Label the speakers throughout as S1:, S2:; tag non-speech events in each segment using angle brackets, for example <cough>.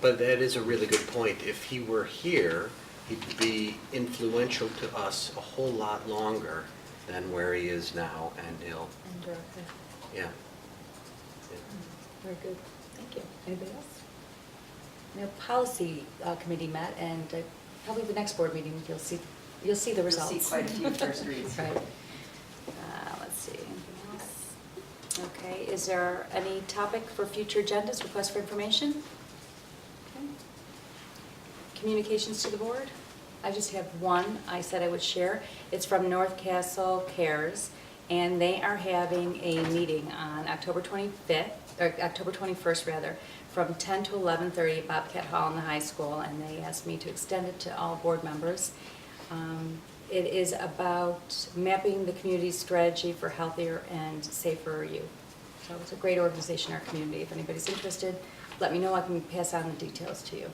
S1: but that is a really good point. If he were here, he'd be influential to us a whole lot longer than where he is now, and he'll,
S2: And director.
S1: yeah.
S2: Very good. Thank you. Anybody else? Now, policy uh, committee met, and uh, probably the next board meeting, you'll see, you'll see the
S3: You'll see
S2: results.
S3: quite a
S2: <laughs>
S3: few first reads.
S2: Right. Uh, Let's see, anything else? Okay, is there any topic for future agendas, request for information? Okay. Communications to the board? I just have one I said I would share. It's from North Castle Cares, and they are having a meeting on October 25th, or October 21st, rather, from 10 to 11:30 at Bobcat Hall in the high school, and they asked me to extend it to all board members. Um, It is about mapping the community's strategy for healthier and safer youth. So it's a great organization, in our community. If anybody's interested, let me know, I can pass on the details to you.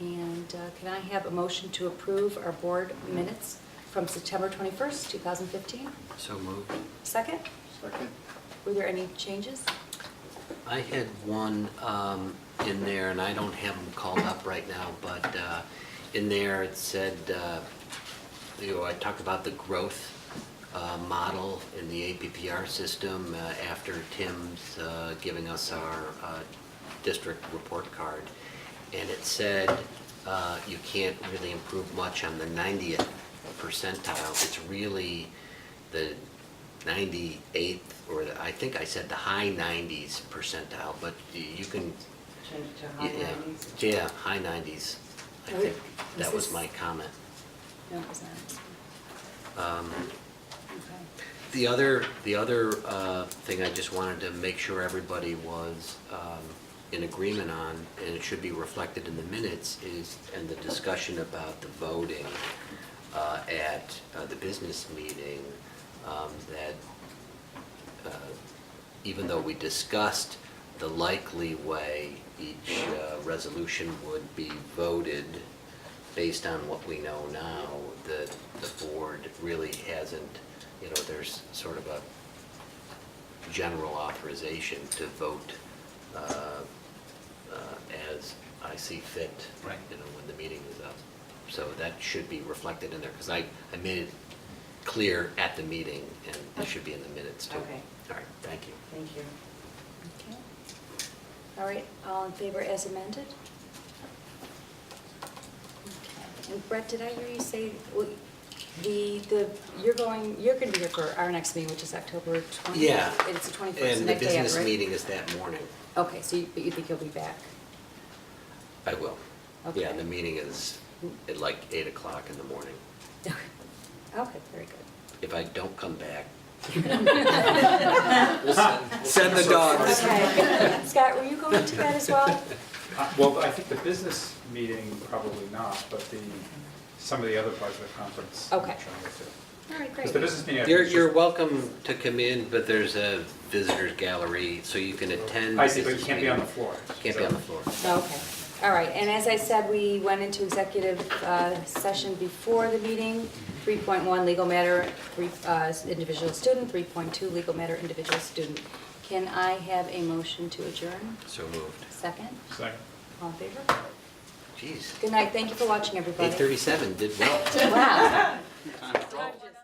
S2: Okay. And uh, can I have a motion to approve our board minutes from September 21st, 2015?
S1: So moved.
S2: Second,
S4: Second.
S2: were there any changes?
S1: I had one um, in there, and I don't have them called up right now, but uh, in there it said, uh, you know, I talked about the growth uh, model in the APPR system uh, after Tim's uh, giving us our uh, district report card. And it said, uh, you can't really improve much on the 90th percentile. It's really the 98th, or the- I think I said the high 90s percentile, but y- you can,
S3: Change it to high
S1: yeah,
S3: nineties.
S1: yeah, high 90s. I
S2: Are we-
S1: think
S2: Oh, is
S1: that was
S2: this-
S1: my comment.
S2: No, it was not.
S1: Um,
S2: Okay.
S1: The other, the other uh, thing I just wanted to make sure everybody was um, in agreement on, and it should be reflected in the minutes, is, and the discussion about the voting uh, at uh, the business meeting, um, that uh, even though we discussed the likely way each uh, resolution would be voted based on what we know now, the, the board really hasn't, you know, there's sort of a general authorization to vote uh, uh, as I see fit.
S5: Right.
S1: You know, when the meeting is up. So that should be reflected in there, because I, I made it clear at the meeting, and it should be in the minutes too.
S3: Okay.
S1: All right, thank you.
S3: Thank you.
S2: Okay. All right, all in favor as amended? Okay. And Brett, did I hear you say, well, the, the, you're going, you're going to be here for our next meeting, which is October 20th?
S1: Yeah.
S2: It's the 21st,
S1: And the
S2: next day after,
S1: business
S2: right?
S1: meeting is that morning.
S2: Okay, so you, but you think you'll be back?
S1: I will. Yeah,
S2: Okay.
S1: the meeting is at like 8 o'clock in the morning.
S2: Okay, Okay, very good.
S1: If I don't come back,
S2: <laughs>
S5: Send the dogs.
S2: Okay. <laughs> Scott, were you going to that as well?
S6: Uh, Well, I think the business meeting, probably not, but the, some of the other parts of the conference. I'm
S2: Okay.
S6: trying to-
S2: All right,
S6: Because the
S2: great.
S6: business meeting. I think,
S1: you're,
S6: is
S1: you're
S6: just-
S1: welcome to come in, but there's a visitors gallery, so you can attend.
S6: I see, but you
S1: business
S6: can't be on the
S1: meeting.
S6: floor.
S1: Can't be on the floor.
S2: <laughs> Okay, all right, and as I said, we went into executive uh, session before the meeting, 3.1 legal matter, three, uh, individual student, 3.2 legal matter, individual student. Can I have a motion to adjourn?
S1: So moved.
S2: Second,
S6: Second.
S2: all in favor?
S1: Jeez,
S2: <laughs> Good night, thank you for watching, everybody.
S1: 8:37 did well.
S2: Wow. Time just-